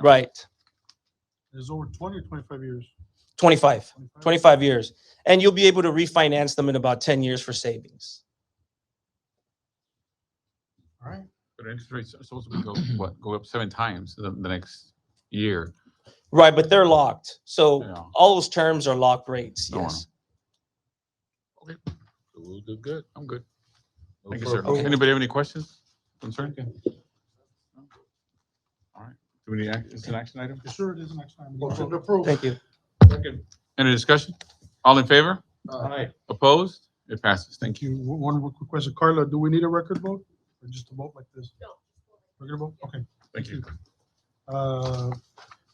Right. It's over 20 or 25 years. 25, 25 years. And you'll be able to refinance them in about 10 years for savings. All right. But interest rates are supposed to be go, what, go up seven times the, the next year. Right, but they're locked. So Yeah. all those terms are locked rates. Go on. Yes. We'll do good. I'm good. No Thank you, sir. further- Okay. Anybody have any questions, concern? All right. Do we need, act- it's an action item? Sure, it is next time. Motion approved. Thank you. Any discussion? All in favor? Aye. Opposed? It passes. Thank Thank you. One one more quick question. Carla, do we need a record vote or just a vote like this? No. Record vote? Okay. you. Thank you. Uh,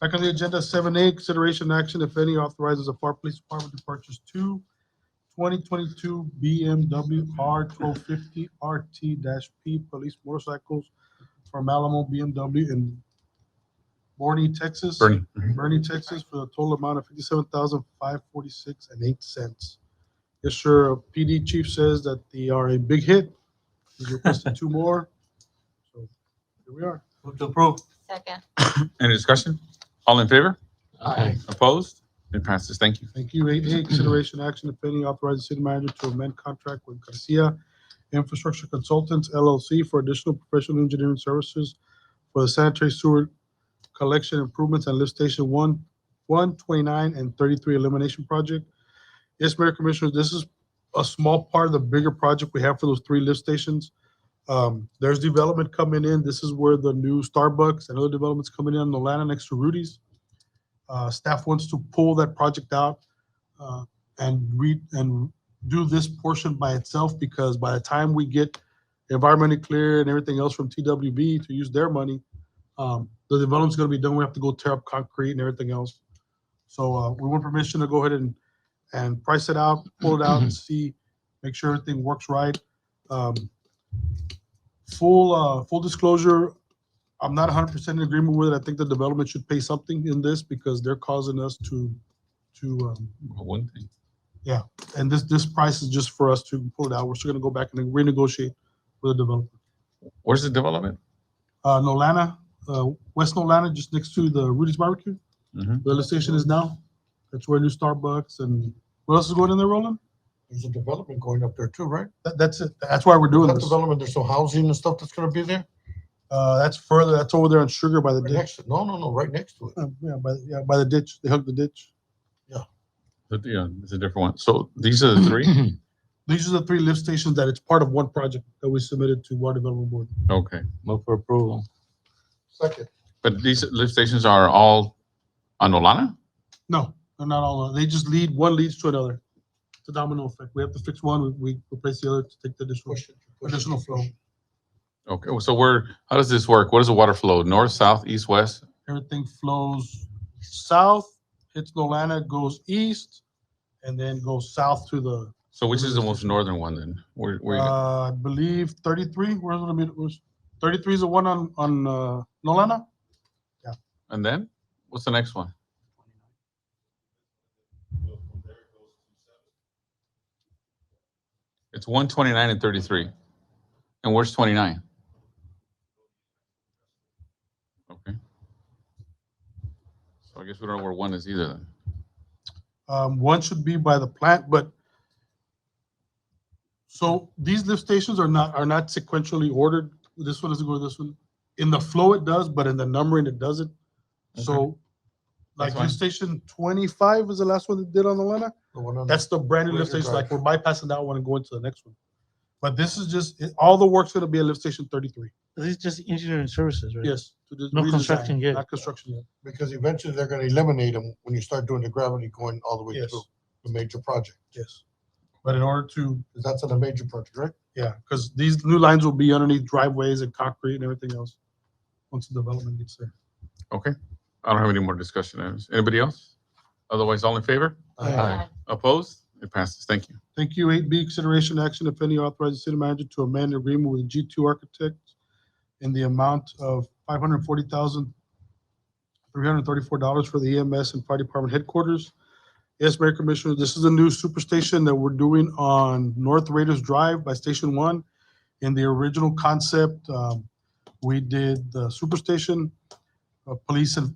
Back on the agenda, seven A, consideration action, if any, authorizes the FAR Police Department to purchase two 2022 BMW R twelve fifty RT P police motorcycles from Alamo BMW in Borney, Texas. Bernie. Bernie, Texas, for a total amount of fifty-seven thousand five forty-six and eight cents. Yes, sir. PD chief says that they are a big hit. He's requested two more. So Here we are. Move to approve. Second. Any discussion? All in favor? Aye. Opposed? It passes. Thank you. Thank you. Eight A, consideration action, if any, authorizing city manager to amend contract with Garcia Infrastructure Consultants LLC for additional professional engineering services for the sanitary sewer collection improvements and lift station one, one twenty-nine and thirty-three elimination project. Yes, Mayor Commissioners, this is a small part of the bigger project we have for those three lift stations. Um, there's development coming in. This is where the new Starbucks and other developments coming in on the land next to Rudy's. Uh, staff wants to pull that project out uh, and re, and do this portion by itself because by the time we get environmentally clear and everything else from TWB to use their money, um, the development's gonna be done. We have to go tear up concrete and everything else. So uh, we want permission to go ahead and, and price it out, pull it out and see, make sure everything works right. Um, Full, uh, full disclosure, I'm not hundred percent in agreement with it. I think the development should pay something in this because they're causing us to, to, um, One thing. and this, this price is just for us to pull it out. We're still gonna go back and renegotiate with the developer. Where's the development? Uh, Nolana, uh, West Nolana, just next to the Rudy's Barbecue, Mhm. the lift station is now. That's where new Starbucks and what else is going in there, Roland? There's a development going up there too, right? That, that's it. That's why we're doing That this. development, there's some housing and stuff that's gonna be there? Uh, that's further, that's over there on Sugar by the Right ditch. next to, no, no, no, right next to it. Uh, Yeah, by, yeah, by the ditch. They hugged the ditch. But, Yeah, it's uh, a different one. So these are the three? These are the three lift stations that it's part of one project that we submitted to Water Development Board. Okay. Move for approval. Second. But these lift stations are all on Olana? No, they're not all, they just lead, one leads to another. It's a domino effect. We have to fix one, we we replace the other to take the additional, Push it, push it, additional flow. Okay, so where, how does this work? What is the water flow? North, south, east, west? Everything flows south, hits Nolana, goes east, and then goes south to the, So which is the most northern one then? Where, where, you got- uh, I believe thirty-three, where's the, middle- where's, thirty-three is the one on, on, uh, Nolana? and then what's the next one? It's one twenty-nine and thirty-three. And where's twenty-nine? Okay. So I guess we don't know where one is either then. Um, one should be by the plant, but so these lift stations are not, are not sequentially ordered. This one doesn't go to this one. In the flow it does, but in the numbering it doesn't. So like That's lift fine. station twenty-five is the last one that did on the lineup. the one on the- That's the brand new lift Razor station. Like we're bypassing that one and going to the next one. But this is just, it- all the work's gonna be at lift station thirty-three. This is just engineering services, right? Yes. to just No redesign, construction yet. Not construction yet. Because eventually they're gonna eliminate them when you start doing the gravity going all the way Yes. through the major project. Yes. But in order to 'Cause That's on the major project, right? Yeah, because these new lines will be underneath driveways and concrete and everything else, once the development gets there. Okay, I don't have any more discussion items. Anybody else? Otherwise, all in favor? Aye. Opposed? It passes. Thank you. Thank you. Eight B, consideration action, if any, authorizing city manager to amend agreement with G two Architects in the amount of five hundred forty thousand, three hundred thirty-four dollars for the EMS and fire department headquarters. Yes, Mayor Commissioner, this is the new superstation that we're doing on North Raiders Drive by Station One. In the original concept, um, we did the superstation, uh, police and